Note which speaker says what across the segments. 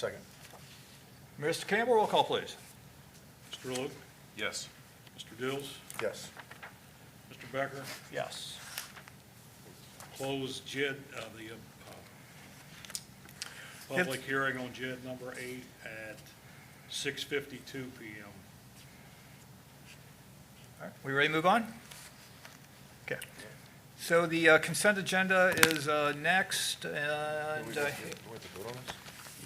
Speaker 1: Second. Mr. Campbell, roll call, please.
Speaker 2: Mr. Luke,
Speaker 3: Yes.
Speaker 2: Mr. Dills,
Speaker 1: Yes.
Speaker 2: Mr. Becker,
Speaker 1: Yes.
Speaker 2: close JID, uh, the, uh, public hearing on JID number eight at six fifty-two PM.
Speaker 1: All right, we ready to move on? Okay. So the uh, consent agenda is uh, next, and uh, we'll-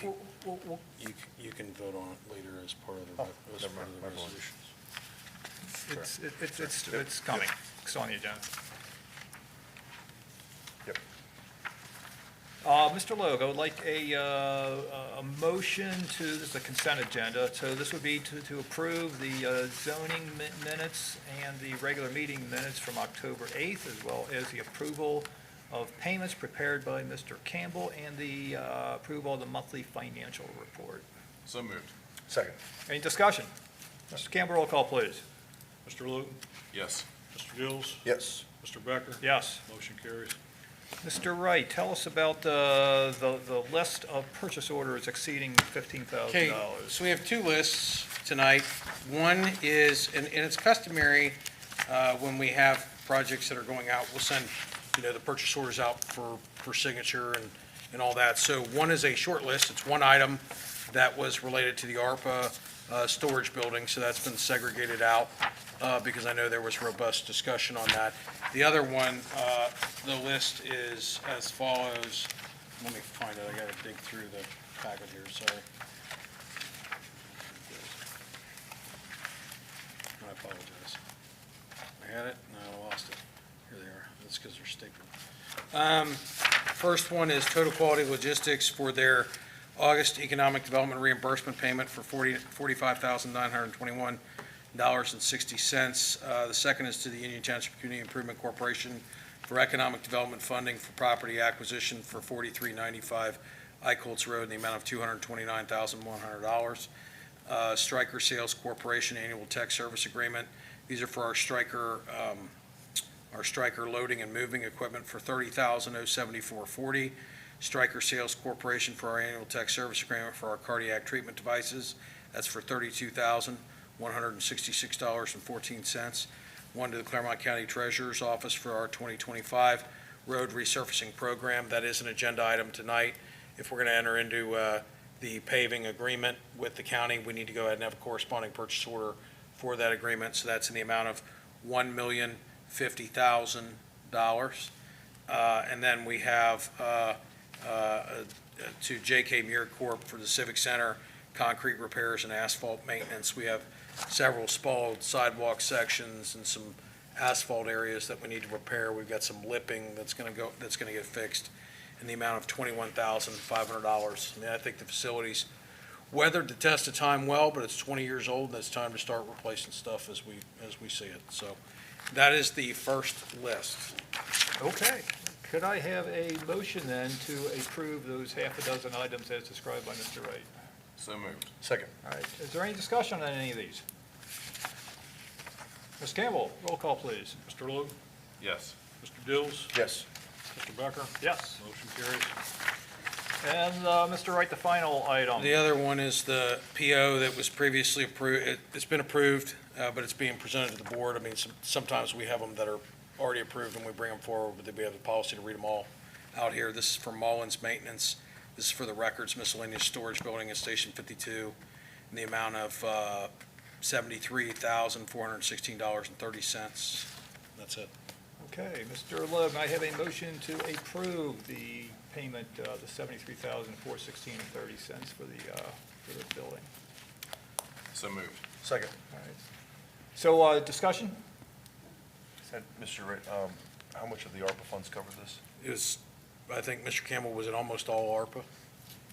Speaker 1: we'll- we'll-
Speaker 4: You, c- you can vote on it later as part of the, re- as
Speaker 3: Oh, never
Speaker 4: part of
Speaker 3: mind,
Speaker 4: the
Speaker 3: my apologies.
Speaker 4: resolutions.
Speaker 1: it's, it- it's, it's it's coming, it's on the agenda.
Speaker 3: Yep.
Speaker 1: Uh, Mr. Logue, I would like a, uh, a- a motion to, this is a consent agenda, so this would be to, to approve the uh, zoning mi- minutes and the regular meeting minutes from October 8th, as well as the approval of payments prepared by Mr. Campbell and the uh, approval of the monthly financial report.
Speaker 3: So moved.
Speaker 5: Second.
Speaker 1: Any discussion? Mr. Campbell, roll call, please.
Speaker 2: Mr. Luke,
Speaker 3: Yes.
Speaker 2: Mr. Dills,
Speaker 5: Yes.
Speaker 2: Mr. Becker.
Speaker 1: Yes.
Speaker 2: Motion carries.
Speaker 1: Mr. Wright, tell us about uh, the, the list of purchase orders exceeding $15,000.
Speaker 6: Okay, so we have two lists tonight. One is, and and it's customary, uh, when we have projects that are going out, we'll send, you know, the purchase orders out for, for signature and, and all that. So one is a short list, it's one item that was related to the ARPA uh, storage building, so that's been segregated out, uh, because I know there was robust discussion on that. The other one, uh, the list is as follows, let me find it, I gotta dig through the packet here, sorry. I apologize. I had it, and I lost it. Here they are. That's because they're stapled. Um, First one is Total Quality Logistics for their August Economic Development Reimbursement Payment for forty forty-five thousand nine hundred twenty-one dollars and sixty cents. Uh, The second is to the Union Township Community Improvement Corporation for Economic Development Funding for Property Acquisition for forty-three ninety-five Icolts Road in the amount of two hundred twenty-nine thousand one hundred dollars uh, Stryker Sales Corporation Annual Tech Service Agreement. These are for our Stryker, um, our Stryker loading and moving equipment for thirty thousand oh seventy-four forty. Stryker Sales Corporation for our Annual Tech Service Agreement for our cardiac treatment devices. That's for thirty-two thousand one hundred and sixty-six dollars and fourteen cents. One to the Claremont County Treasurer's Office for our twenty twenty-five road resurfacing program. That is an agenda item tonight. If we're gonna enter into, uh, the paving agreement with the county, we need to go ahead and have a corresponding purchase order for that agreement, so that's in the amount of one million fifty thousand dollars. Uh, And then we have uh, uh, uh, to JK Muir Corp. for the Civic Center, concrete repairs and asphalt maintenance. We have several spalled sidewalk sections and some asphalt areas that we need to repair. We've got some lipping that's gonna go, that's gonna get fixed in the amount of twenty-one thousand five hundred dollars. I mean, I think the facilities weathered the test of time well, but it's twenty years old, and it's time to start replacing stuff as we, as we see it. So that is the first list.
Speaker 1: Okay. Could I have a motion then to approve those half a dozen items as described by Mr. Wright?
Speaker 3: So moved.
Speaker 5: Second.
Speaker 1: All right, is there any discussion on any of these? Ms. Campbell, roll call, please.
Speaker 2: Mr. Luke,
Speaker 3: Yes.
Speaker 2: Mr. Dills,
Speaker 5: Yes.
Speaker 2: Mr. Becker.
Speaker 1: Yes.
Speaker 2: Motion carries.
Speaker 1: And uh, Mr. Wright, the final item.
Speaker 6: The other one is the PO that was previously approved, it's been approved, uh, but it's being presented to the board. I mean, some- sometimes we have them that are already approved and we bring them forward, but then we have the policy to read them all out here. This is for Mullins Maintenance, this is for the Records Miscellaneous Storage Building at Station 52, in the amount of uh, $73,416.30. That's it.
Speaker 1: Okay, Mr. Logue, I have a motion to approve the payment, uh, the $73,416.30 for the, uh, for the building.
Speaker 3: So moved.
Speaker 5: Second.
Speaker 1: All right. So uh, discussion?
Speaker 5: And Mr. Wright, um, how much of the ARPA funds cover this?
Speaker 6: It was, I think Mr. Campbell was in almost all ARPA,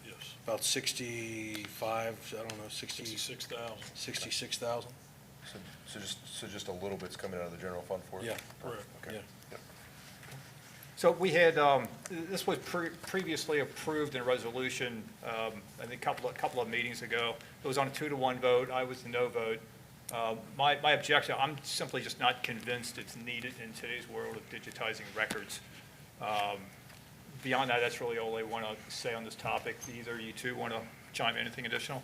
Speaker 2: Yes,
Speaker 6: about 65, I don't know, 60.
Speaker 2: sixty-six thousand,
Speaker 6: 66,000?
Speaker 5: So, so just, so just a little bit's coming out of the general fund for it?
Speaker 6: Yeah.
Speaker 2: correct.
Speaker 5: Okay.
Speaker 6: Yeah.
Speaker 1: So we had, um, this was pre- previously approved in resolution, um, I think a couple, a couple of meetings ago. It was on a two-to-one vote, I was the no vote. Um, My, my objection, I'm simply just not convinced it's needed in today's world of digitizing records. Um, Beyond that, that's really all I want to say on this topic. Either you two want to John, anything additional?